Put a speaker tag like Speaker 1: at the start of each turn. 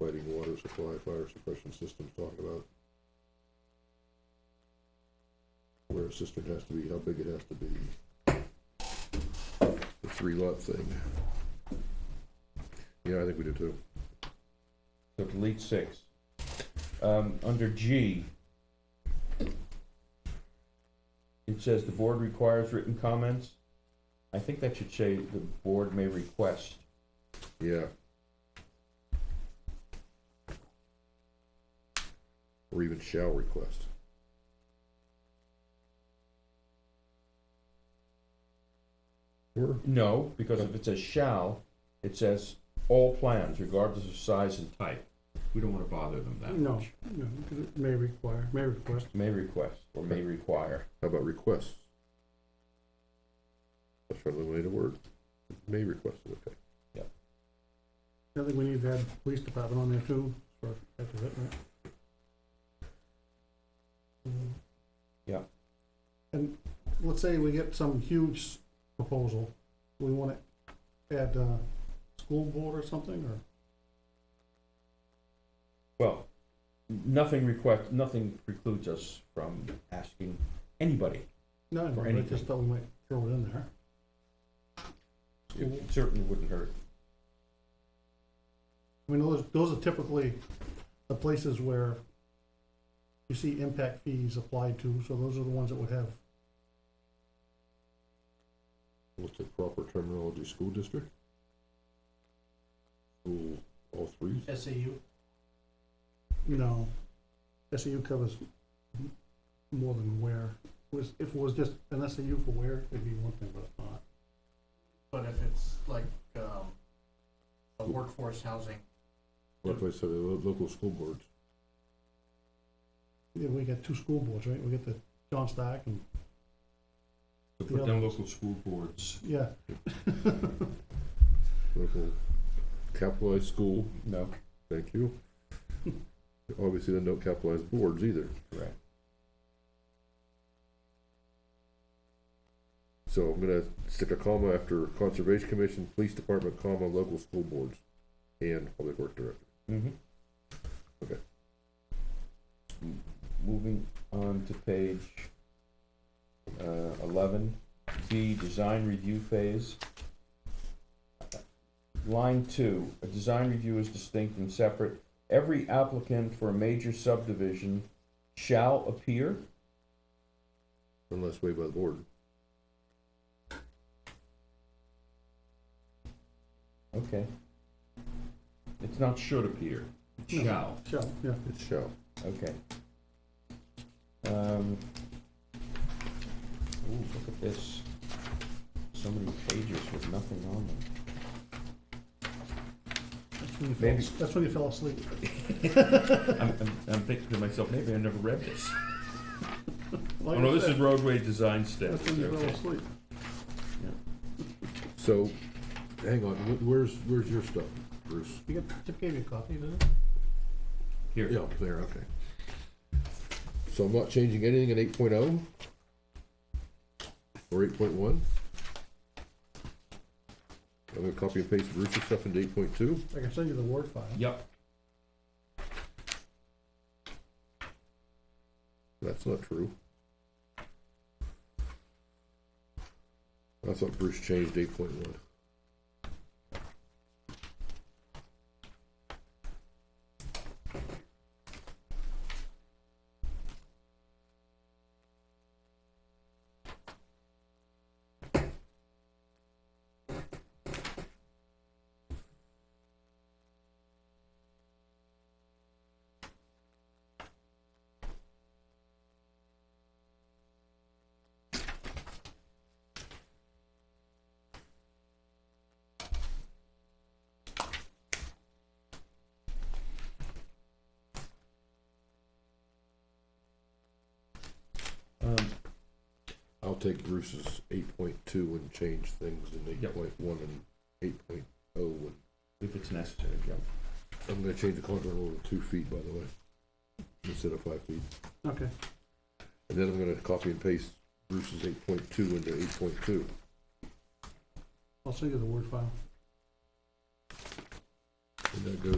Speaker 1: water supply, fire suppression systems talking about where a cistern has to be, how big it has to be. The three lot thing. Yeah, I think we do too.
Speaker 2: So delete six. Um, under G, it says the board requires written comments. I think that should say the board may request.
Speaker 1: Yeah. Or even shall request. Or,
Speaker 2: No, because if it says shall, it says all plans regardless of size and type. We don't wanna bother them that
Speaker 3: No,
Speaker 2: much.
Speaker 3: no, it may require, may request.
Speaker 2: May request or may require.
Speaker 1: how about requests? Let's try to eliminate a word. May request, is okay.
Speaker 3: I think we need to add the police department on there too, for, after that, right? Um,
Speaker 2: Yeah.
Speaker 3: And let's say we get some huge proposal, we wanna add, uh, school board or something, or?
Speaker 2: Well, nothing request, nothing precludes us from asking anybody.
Speaker 3: No,
Speaker 2: For
Speaker 3: I
Speaker 2: anything.
Speaker 3: just thought we might throw it in there.
Speaker 2: It certainly wouldn't hurt.
Speaker 3: I mean, those, those are typically the places where you see impact fees applied to, so those are the ones that would have,
Speaker 1: What's the proper terminology, school district? School, all three?
Speaker 4: SAU,
Speaker 3: you know, SAU covers m- more than where. Was, if it was just an SAU for where, it'd be one thing, but it's not.
Speaker 4: but if it's like, um, a workforce housing,
Speaker 1: What if I said the lo- local school boards?
Speaker 3: Yeah, we got two school boards, right? We got the John Stack and,
Speaker 2: To
Speaker 3: put down
Speaker 2: local school boards.
Speaker 3: yeah,
Speaker 1: Local capitalized school,
Speaker 2: No,
Speaker 1: thank you. Obviously, then no capitalized boards either.
Speaker 2: correct.
Speaker 1: So I'm gonna stick a comma after Conservation Commission, Police Department, comma, local school boards, and Public Works Director.
Speaker 2: Mm-hmm.
Speaker 1: Okay.
Speaker 2: Moving on to page, uh, eleven, B, design review phase. Line two, a design review is distinct and separate. Every applicant for a major subdivision shall appear,
Speaker 1: Unless waived by the board.
Speaker 2: okay. It's not should appear,
Speaker 3: No.
Speaker 2: shall.
Speaker 3: shall, yeah.
Speaker 1: It shall.
Speaker 2: Okay. Um, ooh, look at this. So many pages with nothing on them.
Speaker 3: That's when you
Speaker 2: Maybe.
Speaker 3: fell, that's when you fell asleep.
Speaker 2: I'm, I'm, I'm thinking to myself, maybe I never read this.
Speaker 3: Like
Speaker 2: Oh,
Speaker 3: I
Speaker 2: no, this
Speaker 3: said,
Speaker 2: is roadway design
Speaker 3: That's
Speaker 2: steps.
Speaker 3: when you fell
Speaker 2: Okay.
Speaker 3: asleep.
Speaker 1: So, hang on, wh- where's, where's your stuff, Bruce?
Speaker 3: You got, Tip gave you a copy, didn't it?
Speaker 2: Here,
Speaker 1: Yeah, there, okay. So I'm not changing anything in eight oh? Or eight point one? I'm gonna copy and paste Bruce's stuff into eight point two.
Speaker 3: I can send you the Word file.
Speaker 2: yep,
Speaker 1: That's not true. I thought Bruce changed eight point one.
Speaker 2: um,
Speaker 1: I'll take Bruce's eight point two and change things in eight
Speaker 2: Yep.
Speaker 1: point one and eight point oh.
Speaker 2: if it's necessary, yep.
Speaker 1: I'm gonna change the contour rule to two feet, by the way, instead of five feet.
Speaker 3: Okay,
Speaker 1: And then I'm gonna copy and paste Bruce's eight point two into eight point two.
Speaker 3: I'll send you the Word file.
Speaker 1: And that goes